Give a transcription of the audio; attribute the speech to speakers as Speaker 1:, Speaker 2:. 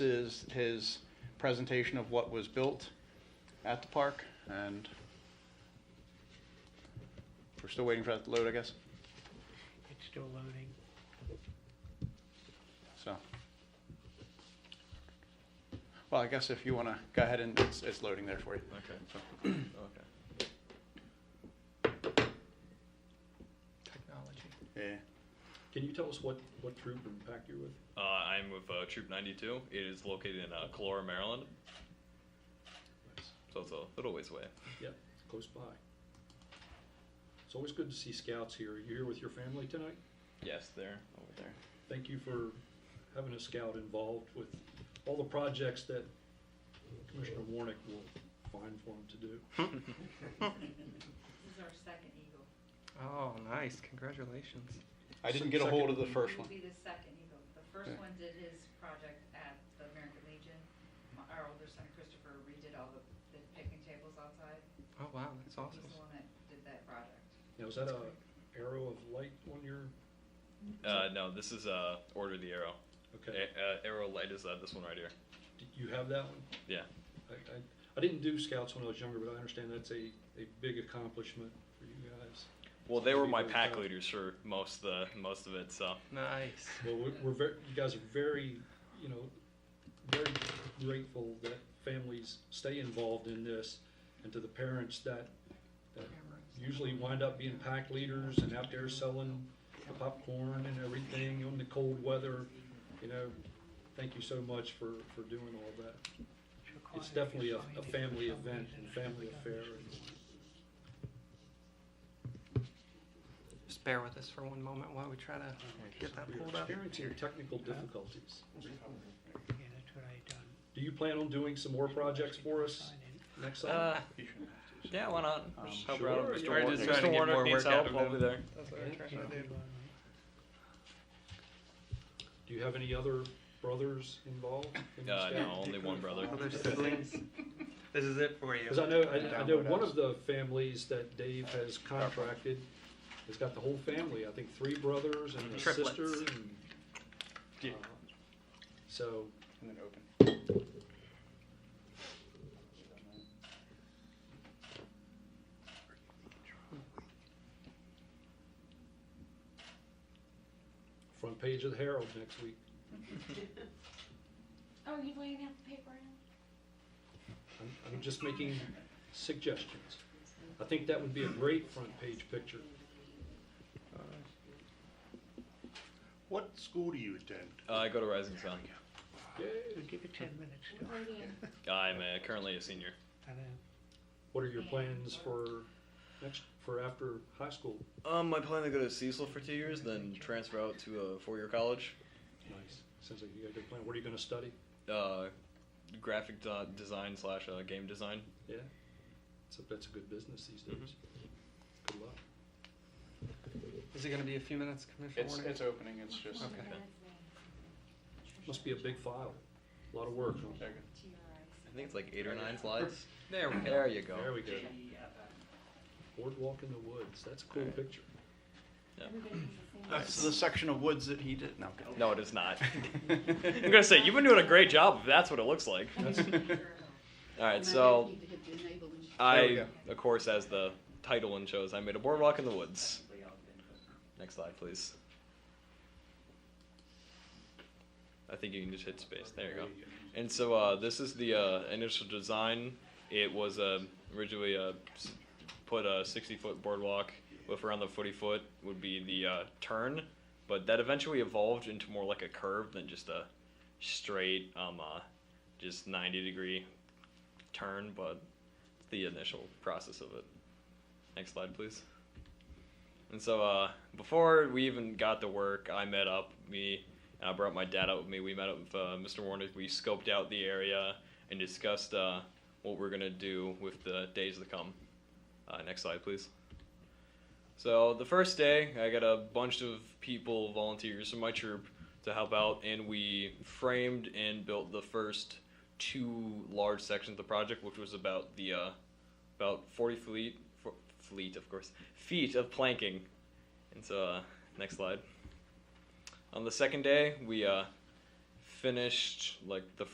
Speaker 1: is his presentation of what was built at the park, and we're still waiting for that to load, I guess,
Speaker 2: It's still loading.
Speaker 1: so. Well, I guess if you want to go ahead and, it's, it's loading there for you.
Speaker 3: Okay. Okay.
Speaker 4: Technology.
Speaker 1: Yeah.
Speaker 5: Can you tell us what, what troop and pack you're with?
Speaker 3: Uh, I'm with uh, Troop 92. It is located in uh, Calora, Maryland, so it's a little ways away.
Speaker 5: Yeah, close by. It's always good to see scouts here. You're here with your family tonight?
Speaker 3: Yes, there, over there.
Speaker 5: Thank you for having a scout involved with all the projects that Commissioner Warnick will find for him to do.
Speaker 6: This is our second Eagle.
Speaker 4: Oh, nice. Congratulations.
Speaker 1: I didn't get a hold of the first one.
Speaker 6: He will be the second Eagle. The first
Speaker 1: Yeah.
Speaker 6: one did his project at the American Legion. My- Our older son Christopher redid all the the picnic tables outside.
Speaker 4: Oh, wow. That's
Speaker 6: He's
Speaker 4: awesome.
Speaker 6: the one that did that project.
Speaker 5: Now, is that a arrow of light on your,
Speaker 3: Uh, no, this is uh, Order the Arrow.
Speaker 5: okay,
Speaker 3: A- uh, arrow Light is uh, this one right here.
Speaker 5: do you have that one?
Speaker 3: Yeah.
Speaker 5: I, I, I didn't do scouts when I was younger, but I understand that's a, a big accomplishment for you guys.
Speaker 3: Well, they were my
Speaker 5: Very
Speaker 3: pack
Speaker 5: proud.
Speaker 3: leaders for most of the most of it. So
Speaker 4: Nice.
Speaker 5: Well, we're, we're very, you guys are very, you know, very grateful that families stay involved in this and to the parents that, that usually wind up being pack leaders and out there selling the popcorn and everything on the cold weather, you know, thank you so much for, for doing all that. It's definitely a, a family event and family affair.
Speaker 4: Just bear with us for one moment while we try to get that
Speaker 5: We are
Speaker 4: pulled up.
Speaker 5: experiencing technical difficulties.
Speaker 2: Yeah, that's what I done.
Speaker 5: Do you plan on doing some more projects for us next summer?
Speaker 4: Uh, yeah, why not?
Speaker 1: Um,
Speaker 4: Help
Speaker 5: sure.
Speaker 4: out.
Speaker 5: Mr.
Speaker 4: We're just
Speaker 5: Warnick-
Speaker 4: trying to
Speaker 3: Mr.
Speaker 4: get
Speaker 3: Warnick
Speaker 4: more
Speaker 3: needs
Speaker 4: work out
Speaker 3: help,
Speaker 4: of
Speaker 3: I'll be
Speaker 4: them.
Speaker 3: there.
Speaker 4: That's what I'm trying to do.
Speaker 5: Do you have any other brothers involved? in the
Speaker 3: Uh,
Speaker 5: staff?
Speaker 3: no, only one brother.
Speaker 4: Other Oh, siblings. This is it for you.
Speaker 5: Because I know, I, I know one of the families that Dave has contracted has got the whole family, I think three brothers and a sister
Speaker 4: Triplets.
Speaker 5: and.
Speaker 3: Yeah.
Speaker 5: uh, So,
Speaker 1: And then open.
Speaker 5: front page of the Herald next week.
Speaker 6: Oh, you laying out the paper now?
Speaker 5: I'm, I'm just making suggestions. I think that would be a great front page picture.
Speaker 7: What school do you attend?
Speaker 3: Uh, I go to Rising Sun.
Speaker 5: Yay.
Speaker 2: Give it ten minutes. still.
Speaker 3: I'm uh, currently a senior.
Speaker 2: I know.
Speaker 5: What are your plans for next, for after high school?
Speaker 3: Um, I plan to go to Cecil for two years, then transfer out to a four-year college.
Speaker 5: Nice. Sounds like you got a good plan. What are you gonna study?
Speaker 3: Uh, graphic de- design slash uh, game design.
Speaker 5: Yeah. So that's a good business these days. Good luck.
Speaker 4: Is it going to be a few minutes, Commissioner
Speaker 1: It's,
Speaker 4: Warner?
Speaker 1: it's opening, it's just,
Speaker 4: Okay.
Speaker 5: Must be a big file. A lot of work. huh?
Speaker 1: there you go.
Speaker 6: To your eyes.
Speaker 3: I think it's like eight or nine slides.
Speaker 4: There we go.
Speaker 3: There you go.
Speaker 5: There we go. Boardwalk in the woods. That's a cool picture.
Speaker 1: That's the section of woods that he did, no. I'm kidding.
Speaker 3: No, it is not. I'm gonna say you've been doing a great job. If that's what it looks like.
Speaker 1: 음.
Speaker 3: All right, so
Speaker 1: There we
Speaker 3: I,
Speaker 1: go.
Speaker 3: of course, as the title one shows, I made a boardwalk in the woods. Next slide, please. I think you can just hit space. There you go. And so uh, this is the uh, initial design. It was uh, originally uh, s- put a 60 foot boardwalk with around the footy foot would be the uh, turn, but that eventually evolved into more like a curve than just a straight, um, uh, just 90 degree turn, but the initial process of it. Next slide, please. And so uh, before we even got to work, I met up me and I brought my dad out with me. We met up with uh, Mr. Warnick. We scoped out the area and discussed uh, what we're gonna do with the days to come. Uh, next slide, please. So the first day, I got a bunch of people, volunteers from my troop, to help out, and we framed and built the first two large sections of the project, which was about the uh, about forty fleet fo- fleet of course feet of planking. And so, uh, next slide. On the second day, we uh, finished like the